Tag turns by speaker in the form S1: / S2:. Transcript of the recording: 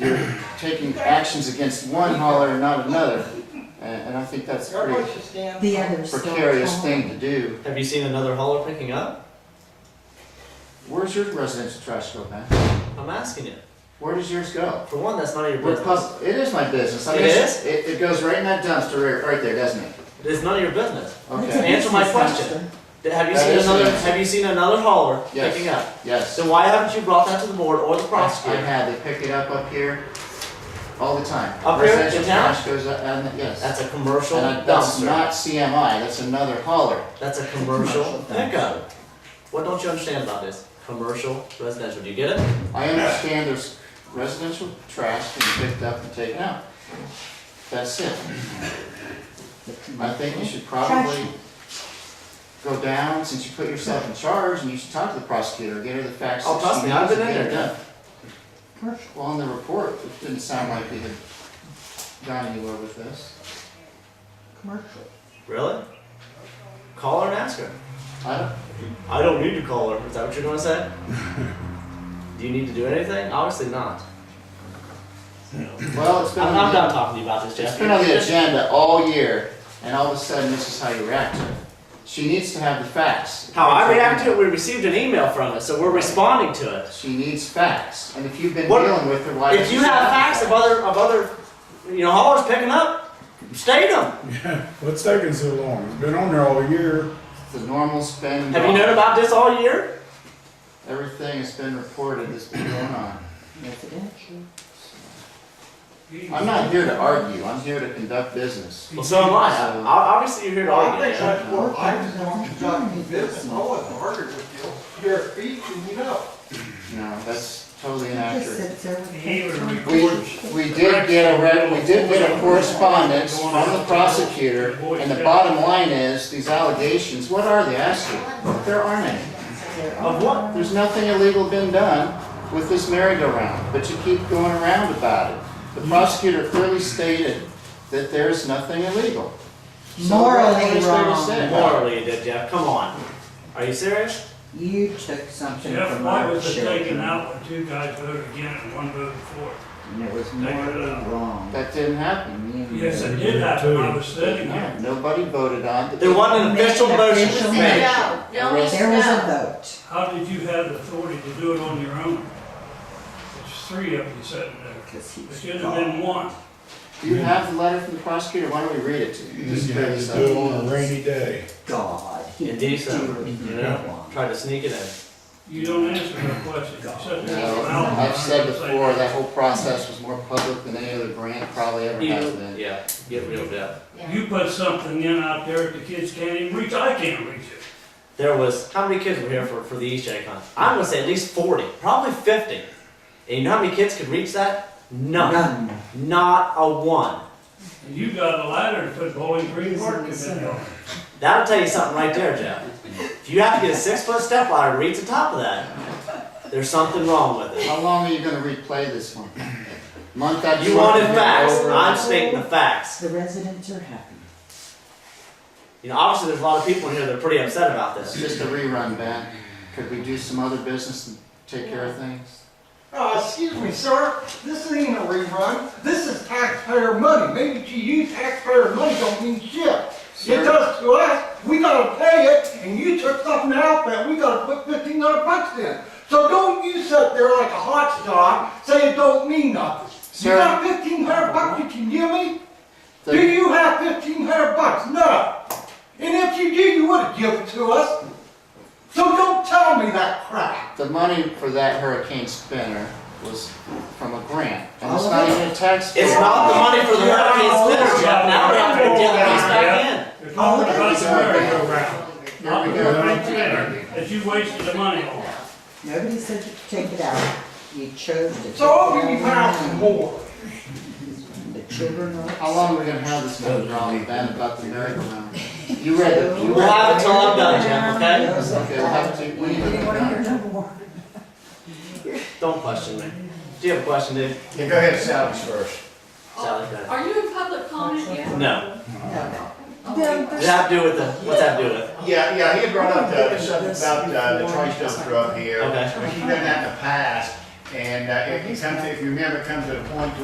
S1: you're taking actions against one hauler and not another. And, and I think that's a
S2: Your
S1: pretty
S2: voice stands.
S3: The others don't.
S1: precarious
S3: call.
S1: thing to do.
S4: Have you seen another hauler picking up?
S1: Where's your residential trash go, man?
S4: I'm asking you.
S1: Where does yours go?
S4: For one, that's none of your
S1: We're
S4: business.
S1: pub- It is my business. I
S4: It
S1: guess It, it goes right in that dumpster right, right there, doesn't it?
S4: It is none of your business.
S1: Okay,
S4: Answer my question. Th- Have you
S1: That
S4: seen
S1: is
S4: another?
S1: business.
S4: Have you seen another hauler
S1: Yes.
S4: picking up?
S1: yes.
S4: So why haven't you brought that to the board or the
S1: I
S4: prosecutor?
S1: had, they pick it up up here all the time.
S4: Up here in
S1: Residential
S4: town?
S1: trash goes up, and, yes.
S4: That's a commercial
S1: And I- that's
S4: dumpster.
S1: not CMI, that's another hauler.
S4: That's a commercial
S1: Commercial dumpster.
S4: pickup. What don't you understand about this? Commercial residential. Do you get it?
S1: I understand there's residential trash can be picked up and taken out. That's it. I think you should probably go down, since you put yourself in charge, and you should talk to the prosecutor, get her the facts.
S4: Oh,
S1: that
S4: trust
S1: she
S4: me, I've
S1: needs
S4: been
S1: and
S4: in
S1: get it
S4: there.
S1: done. Well, on the report, it didn't sound like we had gone anywhere with this.
S3: Commercial.
S4: Really? Call her and ask her.
S1: I don't,
S4: I don't need to call her. Is that what you're gonna say? do you need to do anything? Obviously not.
S1: well, it's been.
S4: I'm,
S1: on
S4: I'm
S1: the-
S4: done talking to you about this, Jeff.
S1: It's been on the agenda all year, and all of a sudden, this is how you react to it. She needs to have the facts.
S4: How I react to it, we received an email from it, so we're responding to it.
S1: She needs facts, and if you've been
S4: What-
S1: dealing with her, why?
S4: If you have facts of other, of other, you know, haulers picking up, state them.
S5: What's taking so long? It's been on there all year.
S1: The normal's been.
S4: Have you known about this all year?
S1: Everything has been reported that's been going on.
S3: Residential.
S1: I'm not here to argue, I'm here to conduct business.
S4: Well, so am I. I- Obviously, you're here to
S2: Well, I
S4: argue.
S2: think
S4: Jeff.
S2: that's more, I just want to talk to this, and I wasn't arguing with you. You're a thief and you know.
S1: No, that's totally
S3: Just
S1: inaccurate.
S3: sits there with.
S6: He would
S3: pictures.
S1: We,
S6: record
S1: we did get a, re- we did get a correspondence from the prosecutor, and the bottom line is, these allegations, what are they asking? There aren't any.
S4: Of what?
S1: There's nothing illegal been done with this merry-go-round, but you keep going around about it. The prosecutor clearly stated that there's nothing illegal. So what
S3: Morally
S1: is there to
S3: wrong.
S1: say about it?
S4: Morally, you did, Jeff. Come on. Are you serious?
S3: You took something
S6: Jeff,
S3: from
S6: why
S3: our
S6: was it taken
S3: children.
S6: out when two guys voted again and one voted for it?
S3: And it was
S6: Taken
S3: morally
S6: out.
S3: wrong.
S1: That didn't happen.
S3: And you
S6: Yes, it
S3: knew
S6: did happen, I was sitting
S1: No,
S6: here.
S1: Nobody voted on it.
S4: There wasn't an official
S3: Make an
S4: motion
S3: official
S4: made.
S3: motion.
S7: No, no,
S3: it. There was a
S7: no.
S3: vote.
S6: How did you have the authority to do it on your own? There's three of you sitting there.
S3: Cause
S6: There
S3: he's
S6: should have been
S3: gone.
S6: one.
S1: Do you have the letter from the prosecutor? Why don't we read it to you?
S5: You
S1: Just
S5: have
S1: clear
S5: to
S1: this up.
S5: do it on a rainy day.
S3: God. he
S4: Indeed, so.
S3: did
S4: You
S3: it
S4: know,
S3: wrong.
S4: tried to sneak it in.
S6: You don't answer my question. You sit there
S1: No,
S6: for an hour and
S1: I've said
S6: say
S1: before, that whole process was more public than any other grant probably ever has
S4: You,
S1: been.
S4: yeah, get real, Jeff.
S6: You put something in out there that the kids can't even reach, I can't reach it.
S4: There was, how many kids were here for, for the East Egg Hunt? I'm gonna say at least forty, probably fifty. And you know how many kids could reach that? None.
S3: None.
S4: Not a one.
S6: And you got a ladder to put Bowling Green Park in there.
S4: That'll tell you something right there, Jeff. If you have to get a six foot step ladder to reach the top of that, there's something wrong with it.
S1: How long are you gonna replay this one? Month after month?
S4: You wanted
S1: over
S4: facts.
S1: and over.
S4: I'm stating the facts.
S3: The residents are happy.
S4: You know, obviously there's a lot of people in here that are pretty upset about
S1: It's
S4: this.
S1: just a rerun, Ben. Could we do some other business and take care of things?
S2: Uh, excuse me, sir, this ain't a rerun, this is taxpayer money, maybe to you taxpayer money don't mean shit. It
S1: Sir.
S2: does to us, we gotta pay it, and you took something out that we gotta put fifteen hundred bucks in. So don't you sit there like a hot dog, say it don't mean nothing. You
S1: Sir.
S2: got fifteen hundred bucks you can give me?
S1: The-
S2: Do you have fifteen hundred bucks? No. And if you do, you would've given it to us. So don't tell me that crap.
S1: The money for that hurricane spinner was from a grant, and it's
S3: Oh,
S1: not
S3: yeah.
S1: even a tax.
S4: It's not the money for the hurricane spinner, Jeff. Now we're having to get these back in.
S6: You're talking about the merry-go-round.
S1: Here we
S6: Not the
S1: go.
S6: right there, that you wasted the money on.
S3: Nobody said you could take it out. You chose to.
S2: So I'll give you half and more.
S3: The children are.
S1: How long are we gonna have this going on, Ben, about the merry-go-round? You read it, you
S4: We'll
S1: read
S4: have it till I'm done, Jim, okay?
S1: it. Okay, we'll have to, we need to.
S3: Anyone here no more?
S4: Don't question me. Do you have a question, dude?
S8: Yeah, go ahead, Sally's first.
S4: Sally, go ahead.
S7: Are you in public comment yet?
S4: No.
S3: No.
S4: Does that have to do with the, what's that do with?
S8: Yeah, yeah, he had brought up uh, something about uh, the trash dump truck here.
S4: Okay.
S8: But she done that in the past,
S1: And uh, it comes, to- if you remember, it comes to the point